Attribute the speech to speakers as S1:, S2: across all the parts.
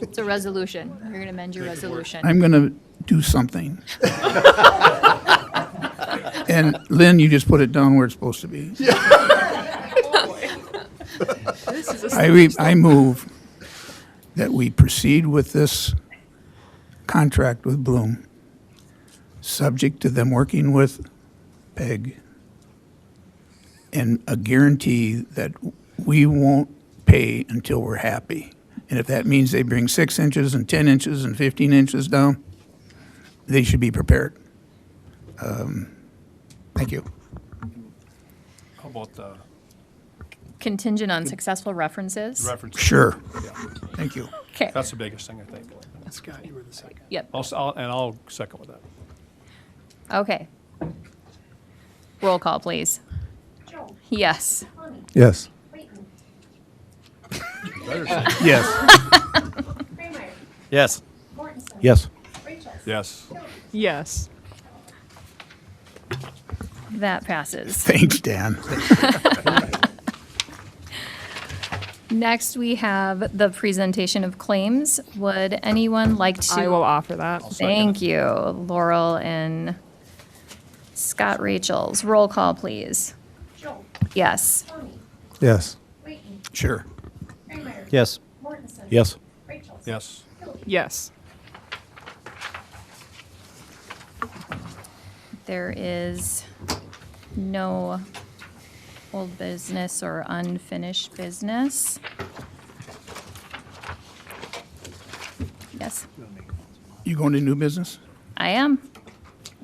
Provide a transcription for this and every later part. S1: It's a resolution. You're going to amend your resolution.
S2: I'm going to do something. And Lynn, you just put it down where it's supposed to be. I, re- I move that we proceed with this contract with Bloom, subject to them working with Peg, and a guarantee that we won't pay until we're happy. And if that means they bring six inches and 10 inches and 15 inches down, they should be prepared. Um, Thank you.
S3: How about the
S1: Contingent on successful references.
S3: reference?
S2: Sure. Thank you.
S1: Okay,
S3: That's the biggest thing, I think.
S4: Scott, you were the second.
S1: yep,
S3: I'll, s- I'll- and I'll second with that.
S1: okay. Roll call, please.
S5: Joe,
S1: Yes.
S5: Connie,
S6: Yes.
S5: Clayton,
S2: Yes.
S5: Kramer,
S7: Yes.
S5: Mortensen.
S6: Yes.
S5: Rachel.
S3: Yes.
S8: Yes.
S1: That passes.
S2: Thanks, Dan.
S1: Next, we have the presentation of claims. Would anyone like to?
S8: I will offer that.
S1: Thank you, Laurel and Scott Rachels. Roll call, please.
S5: Joe,
S1: Yes.
S5: Connie,
S6: Yes.
S5: Clayton,
S2: Sure.
S5: Kramer.
S7: Yes.
S5: Mortensen.
S6: Yes.
S5: Rachel.
S3: Yes.
S5: Hildy.
S8: Yes.
S1: There is no old business or unfinished business. Yes,
S2: You going to new business?
S1: I am.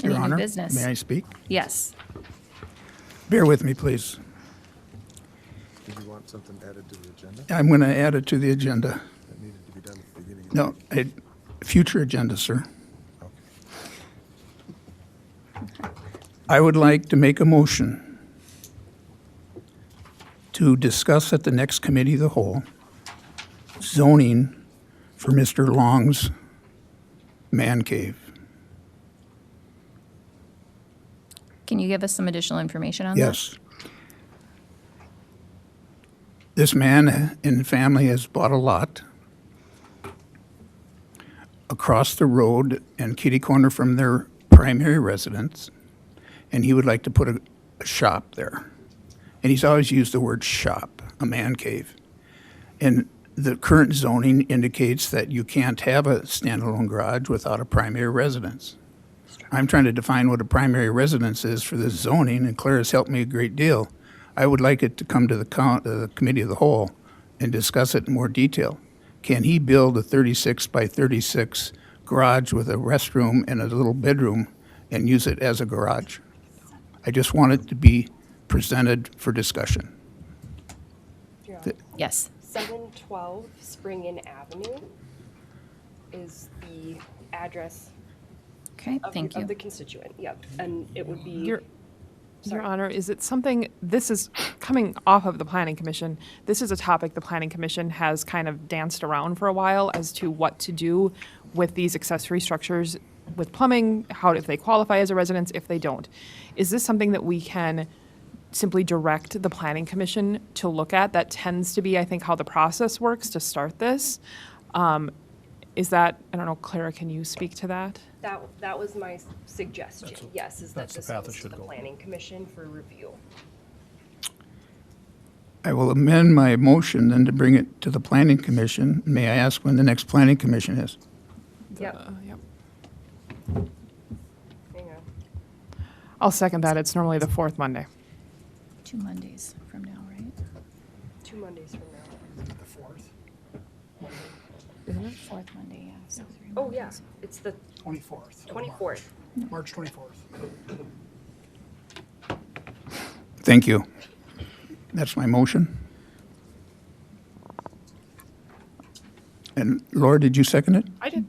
S2: Your
S1: Any new
S2: Honor?
S1: business?
S2: May I speak?
S1: Yes.
S2: Bear with me, please.
S6: Did you want something added to the agenda
S2: I'm going to add it to the agenda.
S6: that needed to be done at the beginning? of-
S2: No, it- future agenda, sir. I would like to make a motion to discuss at the next committee of the whole zoning for Mr. Long's man cave.
S1: Can you give us some additional information on that?
S2: Yes. This man and family has bought a lot across the road and kitty corner from their primary residence, and he would like to put a, a shop there. And he's always used the word shop, a man cave. And the current zoning indicates that you can't have a standalone garage without a primary residence. I'm trying to define what a primary residence is for this zoning, and Claire has helped me a great deal. I would like it to come to the coun uh, the committee of the whole and discuss it in more detail. Can he build a thirty-six by thirty-six garage with a restroom and a little bedroom and use it as a garage? I just want it to be presented for discussion.
S1: Yes.
S9: 712 Spring Inn Avenue is the address
S1: Okay,
S9: of,
S1: thank
S9: the,
S1: you.
S9: of the constituent. Yep. And it would be
S8: Your, Your Honor, is it something, this is coming off of the Planning Commission. This is a topic the Planning Commission has kind of danced around for a while as to what to do with these accessory structures with plumbing, how, if they qualify as a residence, if they don't. Is this something that we can simply direct the Planning Commission to look at? That tends to be, I think, how the process works to start this. Um, Is that, I don't know, Clara, can you speak to that?
S9: that that was my s- suggestion. yes, is that
S3: that's the
S9: this
S3: path it
S9: goes to
S3: should
S9: the
S3: go.
S9: Planning Commission for review.
S2: I will amend my motion then to bring it to the planning commission. May I ask when the next planning commission is?
S9: Yep.
S8: Uh, Yep.
S9: Hang on.
S8: I'll second that. It's normally the fourth Monday.
S1: Two Mondays from now, right?
S9: Two Mondays from now.
S4: The fourth,
S1: Fourth Monday, yeah, so three
S9: Oh yeah,
S1: Mondays.
S9: it's the
S4: twenty-fourth.
S9: 24th.
S4: March twenty-fourth.
S2: Thank you. That's my motion. And Laura, did you second it?
S8: I did.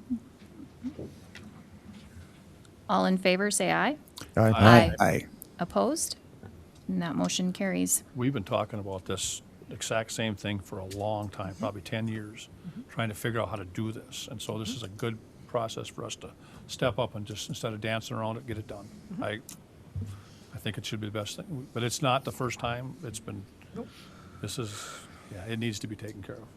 S1: All in favor, say aye.
S2: Aye.
S1: Opposed? And that motion carries.
S3: We've been talking about this exact same thing for a long time, probably 10 years, trying to figure out how to do this. And so this is a good process for us to step up and just, instead of dancing around it, get it done. I, I think it should be the best thing. But it's not the first time. It's been, this is, yeah, it needs to be taken care of.